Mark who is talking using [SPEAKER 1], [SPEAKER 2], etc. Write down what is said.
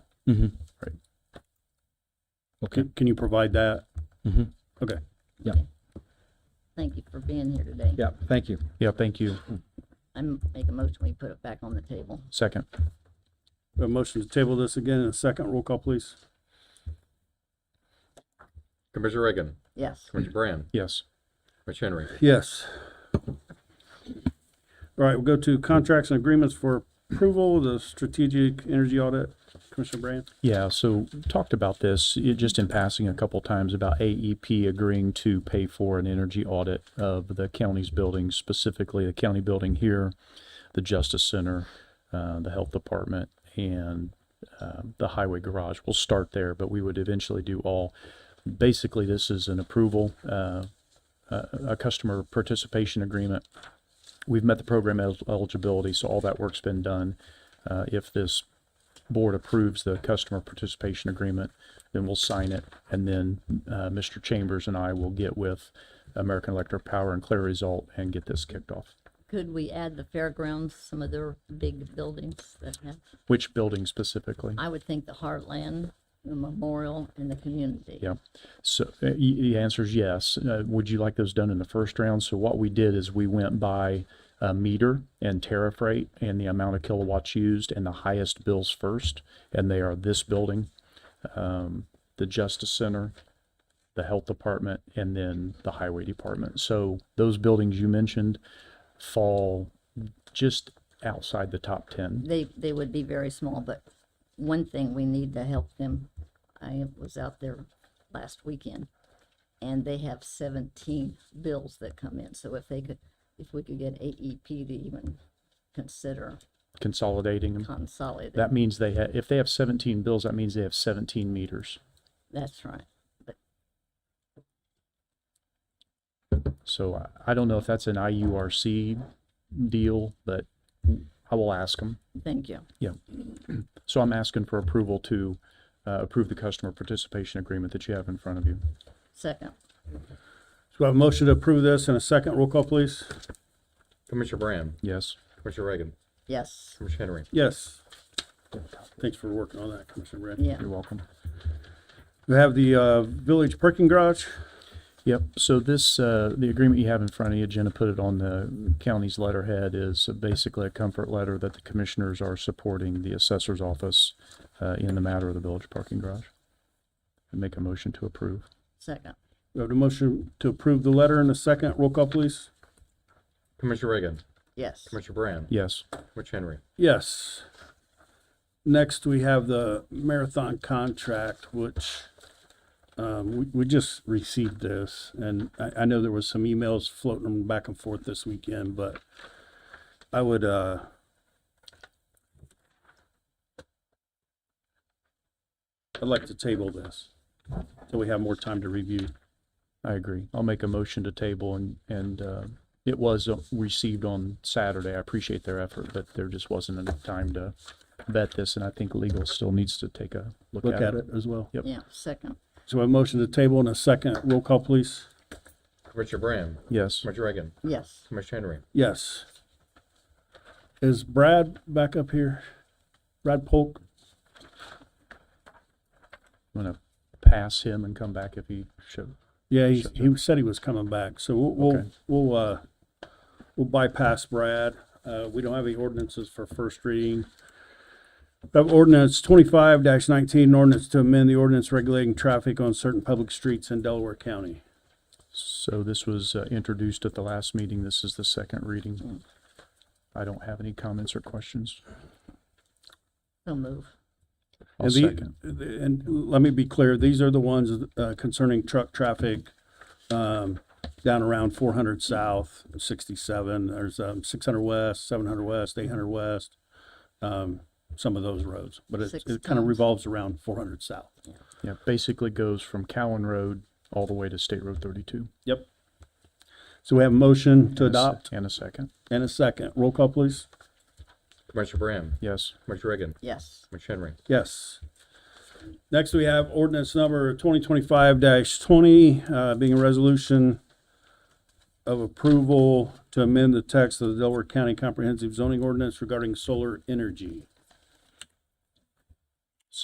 [SPEAKER 1] Mhm.
[SPEAKER 2] Right.
[SPEAKER 1] Okay.
[SPEAKER 2] Can, can you provide that? Mm-hmm.
[SPEAKER 1] Mhm.
[SPEAKER 2] Okay.
[SPEAKER 3] Thank you for being here today.
[SPEAKER 1] Yeah, thank you.
[SPEAKER 2] Yeah, thank you.
[SPEAKER 3] I make a motion, we put it back on the table.
[SPEAKER 1] Second.
[SPEAKER 2] A motion to table this again in a second. Roll call, please.
[SPEAKER 4] Commissioner Reagan,
[SPEAKER 3] Yes.
[SPEAKER 4] Commissioner Brand,
[SPEAKER 1] Yes.
[SPEAKER 4] Commissioner Henry.
[SPEAKER 2] Yes. All right, we'll go to contracts and agreements for approval, of the strategic energy audit. Commissioner Brand?
[SPEAKER 1] Yeah, so talked about this it- just in passing a couple times about AEP agreeing to pay for an energy audit of the county's buildings, specifically the county building here, the Justice Center, uh, the Health Department, and uh, the Highway Garage. We'll start there, but we would eventually do all. Basically, this is an approval, uh, uh, a customer participation agreement. We've met the program el- eligibility, so all that work's been done. Uh, If this board approves the customer participation agreement, then we'll sign it. And then uh, Mr. Chambers and I will get with American Electric Power and Clear Result and get this kicked off.
[SPEAKER 3] Could we add the fairgrounds, some of their big buildings that have,
[SPEAKER 1] Which building specifically?
[SPEAKER 3] I would think the Heartland, the Memorial, and the community.
[SPEAKER 1] Yeah. So uh, y- the answer is yes. Uh, Would you like those done in the first round? So what we did is we went by uh, meter and tariff rate and the amount of kilowatts used and the highest bills first. And they are this building, um, the Justice Center, the Health Department, and then the Highway Department. So those buildings you mentioned fall just outside the top 10.
[SPEAKER 3] They, they would be very small, but one thing we need to help them, I was out there last weekend, and they have seventeen bills that come in, so if they could, if we could get AEP to even consider
[SPEAKER 1] Consolidating them.
[SPEAKER 3] consolidating,
[SPEAKER 1] Mm. That means they have, if they have 17 bills, that means they have 17 meters.
[SPEAKER 3] that's right. But
[SPEAKER 1] So I- I don't know if that's an IURC deal, but I will ask them.
[SPEAKER 3] thank you.
[SPEAKER 1] So I'm asking for approval to uh, approve the customer participation agreement that you have in front of you.
[SPEAKER 3] Second,
[SPEAKER 2] So we have a motion to approve this in a second. Roll call, please.
[SPEAKER 4] Commissioner Brand,
[SPEAKER 1] Yes.
[SPEAKER 4] Commissioner Reagan,
[SPEAKER 3] yes,
[SPEAKER 4] Commissioner Henry.
[SPEAKER 2] Yes. Thanks for working on that, Commissioner Brand.
[SPEAKER 3] yeah.
[SPEAKER 1] You're welcome.
[SPEAKER 2] We have the uh, village parking garage.
[SPEAKER 1] Yep. So this, uh, the agreement you have in front of you, Jenna put it on the county's letterhead, is basically a comfort letter that the commissioners are supporting the assessor's office uh, in the matter of the village parking garage. And make a motion to approve.
[SPEAKER 3] Second,
[SPEAKER 2] We have the motion to approve the letter in a second. Roll call, please.
[SPEAKER 4] Commissioner Reagan,
[SPEAKER 3] yes.
[SPEAKER 4] Commissioner Brand,
[SPEAKER 1] Yes.
[SPEAKER 4] Commissioner Henry.
[SPEAKER 2] Yes. Next, we have the marathon contract, which um, we, we just received this. And I, I know there was some emails floating back and forth this weekend, but I would, uh, I'd like to table this so we have more time to review.
[SPEAKER 1] I agree. I'll make a motion to table and, and, uh, it was uh, received on Saturday. I appreciate their effort, but there just wasn't enough time to vet this, and I think legal still needs to take a look
[SPEAKER 2] Look
[SPEAKER 1] at
[SPEAKER 2] at
[SPEAKER 1] it.
[SPEAKER 2] it as well.
[SPEAKER 1] Yep.
[SPEAKER 3] Yeah, second,
[SPEAKER 2] So a motion to table in a second. Roll call, please.
[SPEAKER 4] Commissioner Brand,
[SPEAKER 1] Yes.
[SPEAKER 4] Commissioner Reagan,
[SPEAKER 3] yes.
[SPEAKER 4] Commissioner Henry.
[SPEAKER 2] Yes. Is Brad back up here? Brad Polk?
[SPEAKER 1] I'm gonna pass him and come back if he should.
[SPEAKER 2] Yeah, he, he said he was coming back, so we'll, we'll,
[SPEAKER 1] Okay.
[SPEAKER 2] we'll, uh, we'll bypass Brad. Uh, we don't have any ordinances for first reading. We have ordinance twenty-five nineteen, an ordinance to amend the ordinance regulating traffic on certain public streets in Delaware County.
[SPEAKER 1] So this was uh, introduced at the last meeting. This is the second reading. I don't have any comments or questions.
[SPEAKER 3] So move,
[SPEAKER 1] I'll
[SPEAKER 2] And the-
[SPEAKER 1] second.
[SPEAKER 2] And let me be clear, these are the ones, uh, concerning truck traffic, um, down around four hundred south, sixty-seven, there's, um, six hundred west, seven hundred west, eight hundred west, um, some of those roads, but it,
[SPEAKER 3] Six
[SPEAKER 2] it kind of
[SPEAKER 3] times.
[SPEAKER 2] revolves around four hundred south.
[SPEAKER 1] Yeah, basically goes from Cowan Road all the way to State Road thirty-two.
[SPEAKER 2] Yep. So we have a motion to
[SPEAKER 1] And a se-
[SPEAKER 2] adopt
[SPEAKER 1] And a second.
[SPEAKER 2] and a second. Roll call, please.
[SPEAKER 4] Commissioner Brand,
[SPEAKER 1] Yes.
[SPEAKER 4] Commissioner Reagan,
[SPEAKER 3] yes.
[SPEAKER 4] Commissioner Henry.
[SPEAKER 2] Yes. Next, we have ordinance number twenty twenty-five twenty, uh, being a resolution of approval to amend the text of the Delaware County Comprehensive Zoning Ordinance regarding solar energy.